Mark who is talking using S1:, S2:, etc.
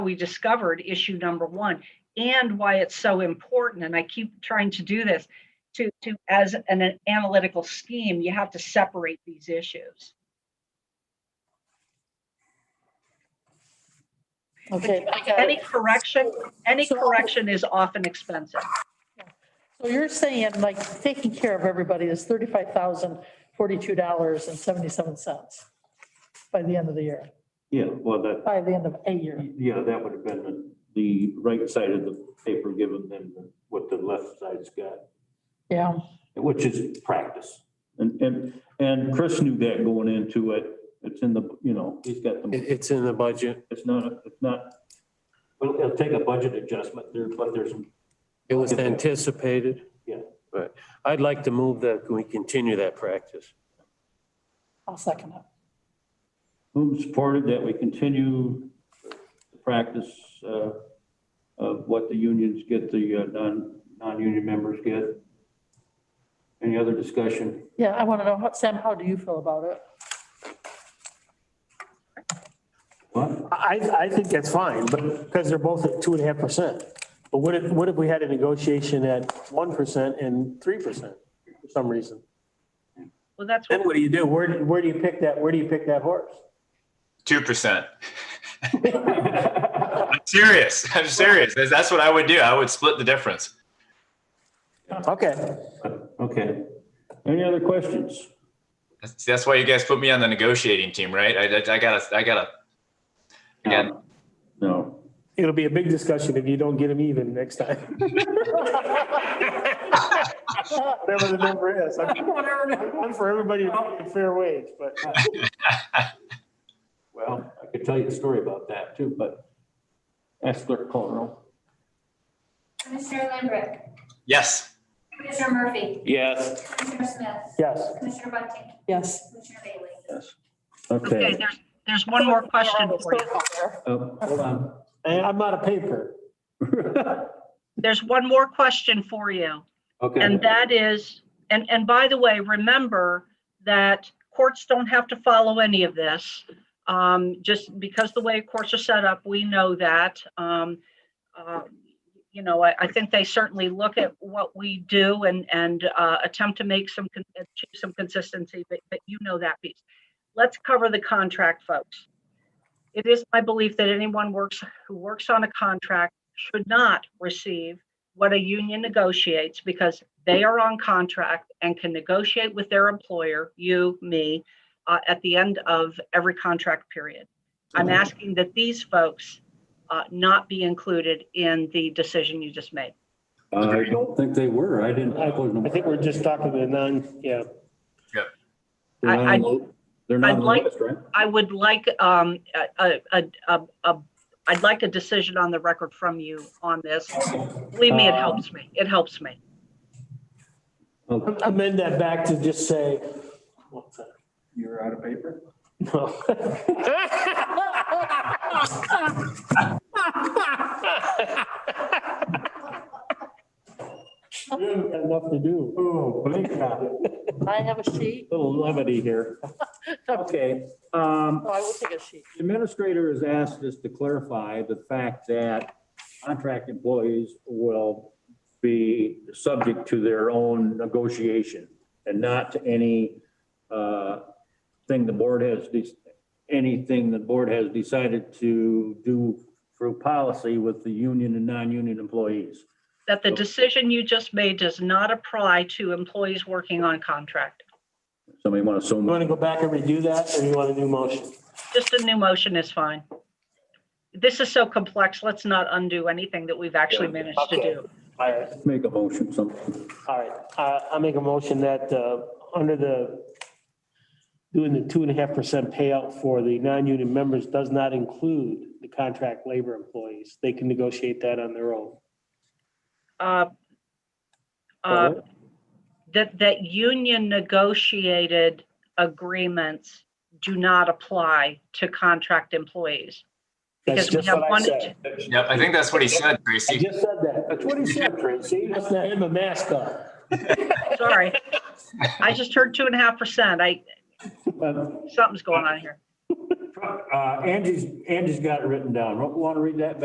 S1: we discovered issue number one and why it's so important. And I keep trying to do this to, to, as an analytical scheme, you have to separate these issues.
S2: Okay, I got
S1: Any
S2: it.
S1: correction, any
S2: So-
S1: correction is often expensive.
S2: So you're saying like taking care of everybody is thirty-five thousand, forty-two dollars and seventy-seven cents by the end of the year,
S3: Yeah, well, that,
S2: by the end of a year.
S3: yeah, that would have been the- the right side of the paper given than what the left side's got,
S2: Yeah,
S3: which is practice. And, and, and Chris knew that going into it. It's in the, you know, he's got
S4: It,
S3: the,
S4: it's in the budget.
S3: it's not, it's not, well, it'll take a budget adjustment there, but there's,
S4: It was anticipated.
S3: Yeah.
S4: But I'd like to move that, we continue that practice.
S2: I'll second it.
S3: who supported that we continue the practice uh, of what the unions get, the uh, non, non-union members get. Any other discussion?
S2: Yeah, I want to know, how- Sam, how do you feel about it?
S3: What?
S5: I, I think that's fine, but, because they're both at two and a half percent. But what if, what if we had a negotiation at one percent and three percent for some reason?
S1: Well, that's
S5: Then
S1: what,
S5: what do you do? Where, do- where do you pick that, where do you pick that horse?
S6: Two percent. I'm serious. I'm serious. That's- That's what I would do. I would split the difference.
S5: Okay.
S3: Okay. Any other questions?
S6: That's, that's why you guys put me on the negotiating team, right? I, I, I gotta, I gotta. Again,
S3: No.
S5: It'll be a big discussion if you don't get them even next time. Whatever the number is. I'm I'm for everybody to pay a fair wage, but. uh,
S3: Well, I could tell you a story about that too, but ask Clerk Colerole.
S7: Commissioner Lambrecht,
S6: yes.
S7: Commissioner Murphy,
S4: Yes.
S7: Commissioner Smith,
S5: Yes,
S7: Commissioner Bunting,
S2: Yes.
S7: Commissioner Bailey.
S1: okay,
S3: Okay.
S1: there's, there's one more question for you.
S3: Oh, Hold on.
S5: and I'm out of paper.
S1: There's one more question for you.
S3: Okay.
S1: And that is, and, and by the way, remember that courts don't have to follow any of this. Um, just because the way courts are set up, we know that. Um, uh, you know, I, I think they certainly look at what we do and, and, uh, attempt to make some, con- achieve some consistency, but, but you know that piece. Let's cover the contract, folks. It is my belief that anyone works, who works on a contract should not receive what a union negotiates because they are on contract and can negotiate with their employer, you, me, uh, at the end of every contract period. I'm asking that these folks uh, not be included in the decision you just made.
S3: I don't think they were. I didn't.
S5: I I think we're just talking to non, yeah.
S3: They're not
S1: I- I-
S3: on the- They're not
S1: I'd
S3: on the
S1: like-
S3: list, right?
S1: I would like um, a, a, a, a, I'd like a decision on the record from you on this. Believe me, it helps me. It helps me.
S3: Oh,
S5: Amend that back to just say.
S3: You're out of paper?
S5: No. You haven't got Enough to do.
S3: Oh, blink now.
S2: I have a sheet,
S3: Little levity here. Okay, um,
S2: no, Oh, I will take a sheet.
S3: The Administrator has asked us to clarify the fact that contract employees will be subject to their own negotiation and not to any uh, thing the board has, de- anything the board has decided to do through policy with the union and non-union employees.
S1: That the decision you just made does not apply to employees working on contract.
S3: Somebody want to so
S5: You
S3: move?
S5: want to go back and redo that or you want a new motion?
S1: Just a new motion is fine. This is so complex, let's not undo anything that we've actually managed to
S5: Okay.
S1: do.
S5: All right,
S3: Make a motion, something.
S5: all right. I, I make a motion that, uh, under the, doing the two and a half percent payout for the non-union members does not include the contract labor employees. They can negotiate that on their own.
S1: Uh, uh, That, that union negotiated agreements do not apply to contract employees. Because
S5: That's
S1: we
S5: just
S1: have
S5: what I
S1: one-
S5: said.
S6: Yep. I think that's what he said,
S5: I
S6: Tracy.
S5: just said that. That's what he said, Tracy. Must have him a mask on.
S1: Sorry. I just heard two and a half percent. I, something's going on here.
S3: Uh, Angie's, Angie's got it written down. Want to read that